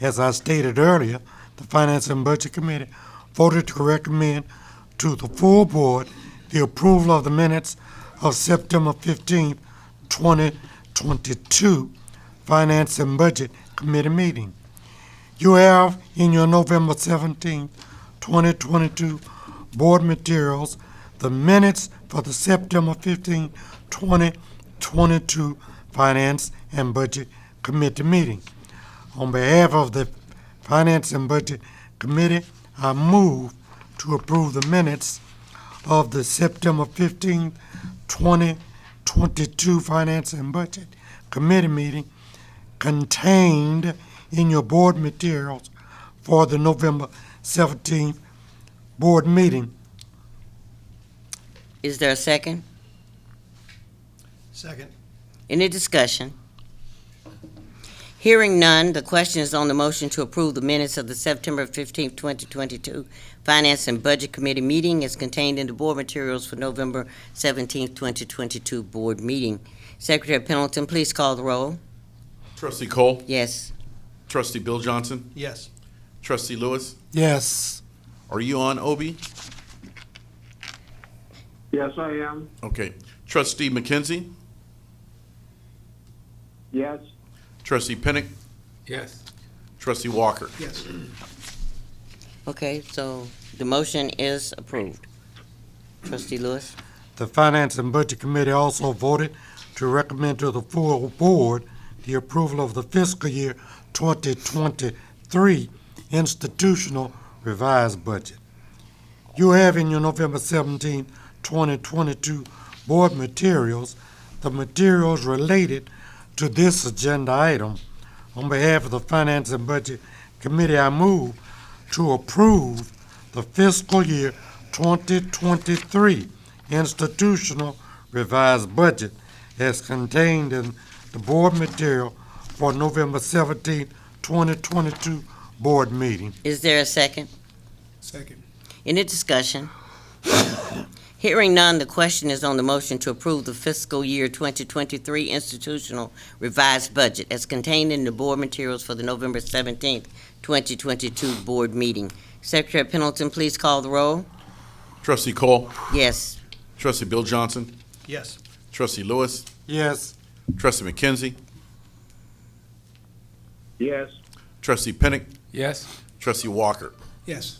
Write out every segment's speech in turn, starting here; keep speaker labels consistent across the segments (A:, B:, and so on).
A: As I stated earlier, the Finance and Budget Committee voted to recommend to the full board the approval of the minutes of September fifteenth, twenty twenty-two Finance and Budget Committee meeting. You have in your November seventeenth, twenty twenty-two board materials, the minutes for the September fifteenth, twenty twenty-two Finance and Budget Committee meeting. On behalf of the Finance and Budget Committee, I move to approve the minutes of the September fifteenth, twenty twenty-two Finance and Budget Committee meeting contained in your board materials for the November seventeenth board meeting.
B: Is there a second?
C: Second.
B: Any discussion? Hearing none, the question is on the motion to approve the minutes of the September fifteenth, twenty twenty-two Finance and Budget Committee meeting as contained in the board materials for November seventeenth, twenty twenty-two board meeting. Secretary Pendleton, please call the roll.
D: Trustee Cole,
B: Yes.
D: Trustee Bill Johnson,
C: Yes.
D: Trustee Lewis,
A: Yes.
D: are you on, Obi?
E: Yes, I am.
D: Okay. Trustee McKenzie,
E: Yes.
D: Trustee Pinnick,
C: Yes.
D: Trustee Walker.
C: Yes.
B: Okay, so the motion is approved. Trustee Lewis?
A: The Finance and Budget Committee also voted to recommend to the full board the approval of the fiscal year 2023 institutional revised budget. You have in your November 17, 2022 board materials, the materials related to this agenda item. On behalf of the Finance and Budget Committee, I move to approve the fiscal year 2023 institutional revised budget as contained in the board material for November 17, 2022 board meeting.
B: Is there a second?
C: Second.
B: Any discussion? Hearing none, the question is on the motion to approve the fiscal year 2023 institutional revised budget as contained in the board materials for the November 17th, 2022 board meeting. Secretary Pendleton, please call the roll.
D: Trustee Cole,
B: Yes.
D: Trustee Bill Johnson,
C: Yes.
D: Trustee Lewis,
A: Yes,
D: Trustee McKenzie,
E: Yes.
D: Trustee Pinnick,
F: Yes,
D: Trustee Walker.
C: Yes.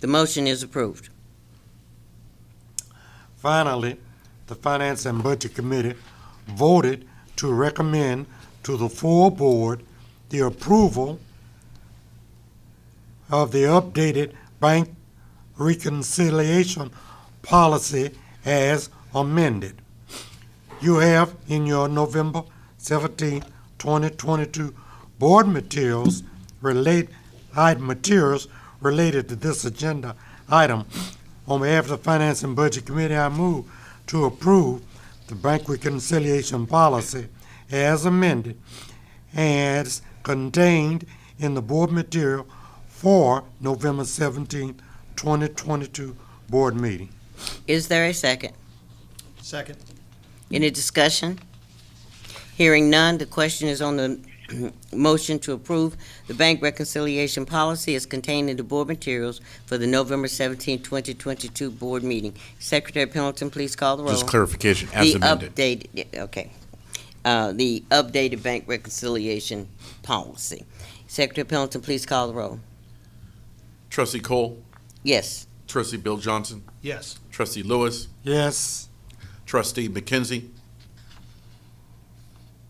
B: The motion is approved.
A: finally, the Finance and Budget Committee voted to recommend to the full board the approval of the updated bank reconciliation policy as amended. You have in your November 17, 2022 board materials relate, item materials related to this agenda item. On behalf of the Finance and Budget Committee, I move to approve the bank reconciliation policy as amended as contained in the board material for November 17, 2022 board meeting.
B: Is there a second?
C: Second.
B: Any discussion? Hearing none, the question is on the motion to approve the bank reconciliation policy as contained in the board materials for the November 17, 2022 board meeting. Secretary Pendleton, please call the roll.
D: Just clarification, as amended.
B: The updated, yeah, okay, Uh, the updated bank reconciliation policy. Secretary Pendleton, please call the roll.
D: Trustee Cole,
B: Yes.
D: Trustee Bill Johnson,
C: Yes.
D: Trustee Lewis,
A: Yes,
D: Trustee McKenzie,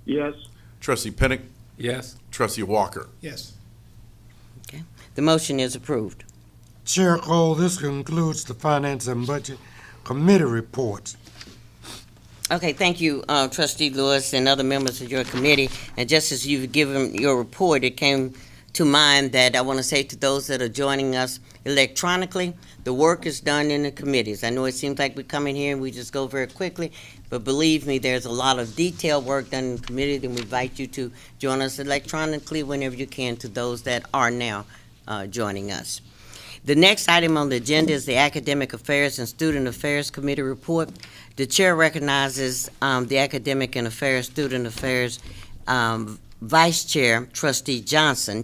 E: Yes.
D: Trustee Pinnick,
F: yes,
D: Trustee Walker.
C: Yes.
B: The motion is approved.
A: Chair Cole, this concludes the Finance and Budget Committee reports.
B: Okay, thank you, uh, trustee Lewis and other members of your committee. And just as you've given your report, it came to mind that I want to say to those that are joining us electronically, the work is done in the committees. I know it seems like we come in here and we just go very quickly, but believe me, there's a lot of detailed work done in the committee, and we invite you to join us electronically whenever you can to those that are now uh, joining us. The next item on the agenda is the Academic Affairs and Student Affairs Committee report. The chair recognizes um, the Academic and Affairs, Student Affairs um, Vice Chair, Trustee Johnson,